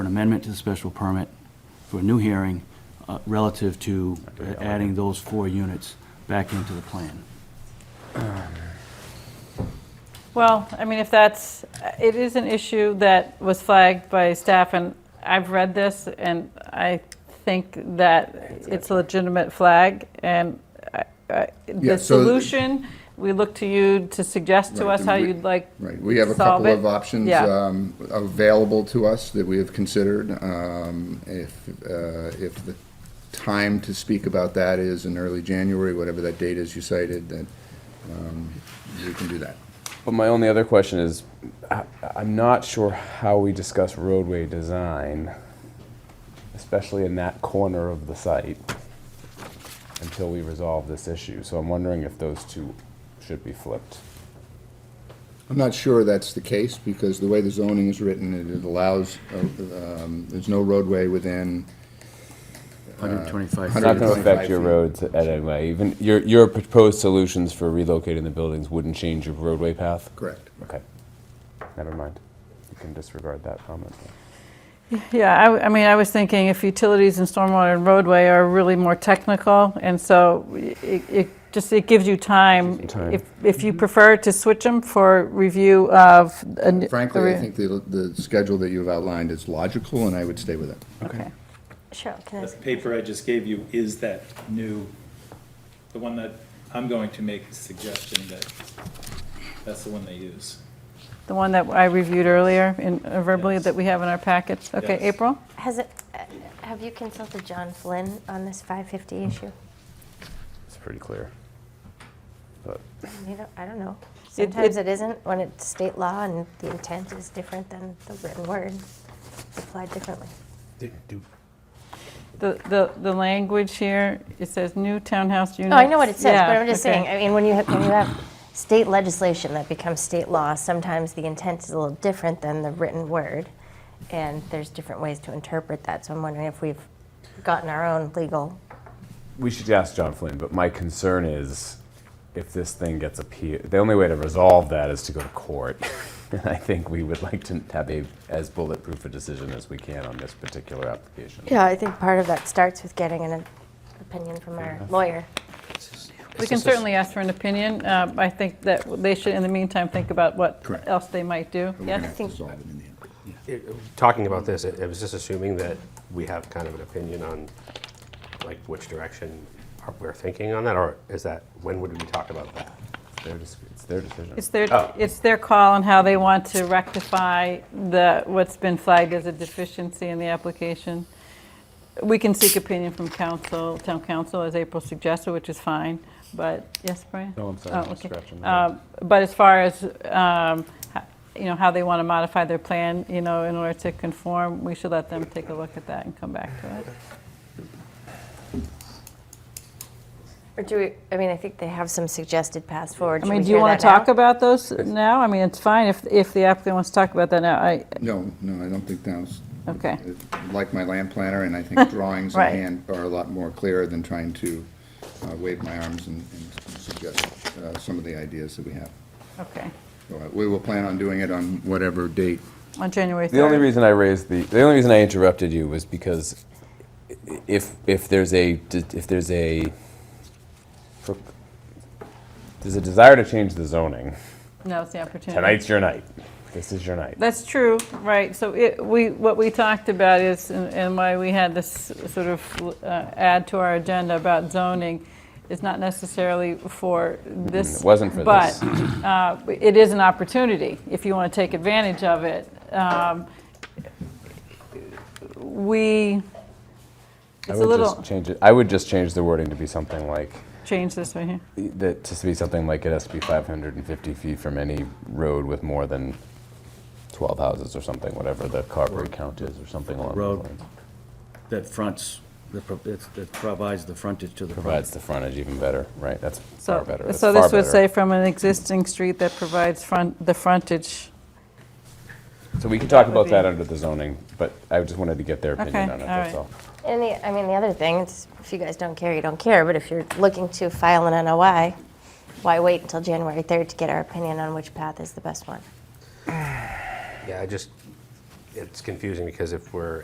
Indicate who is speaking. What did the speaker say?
Speaker 1: amendment to the special permit for a new hearing uh, relative to adding those four units back into the plan.
Speaker 2: Well, I mean, if that's, it is an issue that was flagged by staff, and I've read this, and I think that it's a legitimate flag, and I- I-
Speaker 3: Yeah,
Speaker 2: the
Speaker 3: so-
Speaker 2: solution, we look to you to suggest to
Speaker 3: Right,
Speaker 2: us how
Speaker 3: then we-
Speaker 2: you'd like.
Speaker 3: Right, we have a
Speaker 2: solve
Speaker 3: couple
Speaker 2: it.
Speaker 3: of options
Speaker 2: Yeah.
Speaker 3: um, available to us that we have considered. Um, If, uh, if the time to speak about that is in early January, whatever that date is you cited, then um, we can do that.
Speaker 4: But my only other question is, I- I'm not sure how we discuss roadway design, especially in that corner of the site, until we resolve this issue. So I'm wondering if those two should be flipped.
Speaker 3: I'm not sure that's the case, because the way the zoning is written, it- it allows, uh, um, there's no roadway within
Speaker 1: 125
Speaker 4: It's not going to
Speaker 3: 125
Speaker 4: affect your
Speaker 3: feet.
Speaker 4: roads at any way. Even your, your proposed solutions for relocating the buildings wouldn't change your roadway path?
Speaker 3: Correct.
Speaker 4: Okay. Never mind. You can disregard that comment.
Speaker 2: Yeah, I w- I, mean, I was thinking if utilities and stormwater and roadway are really more technical, and so it, it just, it gives you time.
Speaker 4: Gives you time.
Speaker 2: If, if
Speaker 3: Mm-hmm.
Speaker 2: you prefer to switch them for review of. a n- a
Speaker 3: Frankly,
Speaker 2: re-
Speaker 3: I think the, the schedule that you've outlined is logical, and I would stay with it.
Speaker 2: Okay.
Speaker 5: Cheryl, can I
Speaker 6: The
Speaker 5: ask-
Speaker 6: paper I just gave you is that new, the one that I'm going to make the suggestion that that's the one they use.
Speaker 2: The one that I reviewed earlier in uh, verbally
Speaker 6: Yes.
Speaker 2: that we have in our packets. Okay,
Speaker 6: Yes.
Speaker 2: April?
Speaker 5: has it, uh, have you consulted John Flynn on this 550 issue?
Speaker 4: It's pretty clear. But
Speaker 5: You don't, I don't know.
Speaker 2: It-
Speaker 5: Sometimes
Speaker 2: it-
Speaker 5: it isn't when it's state law and the intent is different than the written word applied differently.
Speaker 2: The, the, the language here, it says new townhouse units.
Speaker 5: No, Oh, I know what it says,
Speaker 2: Yeah,
Speaker 5: but I'm just
Speaker 2: okay.
Speaker 5: saying, I mean, when you have, when you have state legislation that becomes state law, sometimes the intent is a little different than the written word. And there's different ways to interpret that, so I'm wondering if we've gotten our own legal,
Speaker 4: we should ask John Flynn, but my concern is if this thing gets appealed, the only way to resolve that is to go to court. And I think we would like to have a, as bulletproof a decision as we can on this particular application.
Speaker 5: yeah, I think part of that starts with getting an opinion from our lawyer.
Speaker 2: We can certainly ask for an opinion. Um, I think that they should, in the meantime, think about what
Speaker 3: Correct.
Speaker 2: else they might do.
Speaker 3: We're gonna
Speaker 2: Yes?
Speaker 3: have to resolve it in the end.
Speaker 7: It- Talking about this, it it was just assuming that we have kind of an opinion on, like, which direction are- we're thinking on that, or is that, when would we talk about that?
Speaker 4: It's their dis- It's their decision.
Speaker 2: It's their, it's their call on how they want to rectify the, what's been flagged as a deficiency in the application. We can seek opinion from council, town council, as April suggested, which is fine, but, yes, Brian?
Speaker 4: No, I'm sorry, I'm
Speaker 2: Oh, okay.
Speaker 4: scratching that.
Speaker 2: Um, But as far as, um, h- you know, how they want to modify their plan, you know, in order to conform, we should let them take a look at that and come back to it.
Speaker 5: Or do we, I mean, I think they have some suggested paths forward.
Speaker 2: I
Speaker 5: Should
Speaker 2: mean,
Speaker 5: we
Speaker 2: do you
Speaker 5: hear
Speaker 2: want to
Speaker 5: that now?
Speaker 2: talk about those now? I mean, it's fine if, if the applicant wants to talk about that now. I,
Speaker 3: No, no, I don't think that's,
Speaker 2: okay.
Speaker 3: like my land planner, and I think drawings in
Speaker 2: Right.
Speaker 3: hand are a lot more clear than trying to uh, wave my arms and and suggest uh, some of the ideas that we have.
Speaker 2: Okay,
Speaker 3: So, uh, We will plan on doing it on whatever date.
Speaker 2: on January 3rd.
Speaker 4: The only reason I raised the the only reason I interrupted you was because i- if if there's a d- if there's a pro- there's a desire to change the zoning.
Speaker 2: Now's the opportunity.
Speaker 4: Tonight's your night. This is your night.
Speaker 2: That's true, right. So it, we, what we talked about is, and and why we had this sort of uh, add to our agenda about zoning, is not necessarily for this.
Speaker 4: It wasn't for
Speaker 2: but,
Speaker 4: this.
Speaker 2: uh, it is an opportunity if you want to take advantage of it. Um, We,
Speaker 4: I
Speaker 2: it's a
Speaker 4: would
Speaker 2: little,
Speaker 4: just change it. I would just change the wording to be something like
Speaker 2: change this right here.
Speaker 4: that to be something like it has to be 550 feet from any road with more than 12 houses or something, whatever the Carberry count is or something along
Speaker 1: Road.
Speaker 4: those lines.
Speaker 1: That fronts, that pro- that's- that provides the frontage to the property.
Speaker 4: Provides the frontage even better, right? That's far
Speaker 2: So,
Speaker 4: better. That's
Speaker 2: so
Speaker 4: far
Speaker 2: this would
Speaker 4: better.
Speaker 2: say from an existing street that provides front, the frontage.
Speaker 4: So we can talk
Speaker 2: would
Speaker 4: about that
Speaker 2: be-
Speaker 4: under the zoning, but I just wanted to get their opinion
Speaker 2: Okay,
Speaker 4: on it,
Speaker 2: all
Speaker 4: that's
Speaker 2: right.
Speaker 4: all.
Speaker 5: And the, I mean, the other thing, is if you guys don't care, you don't care, but if you're looking to file an NOI, why wait until January 3rd to get our opinion on which path is the best one?
Speaker 7: Yeah, I just, it's confusing, because if we're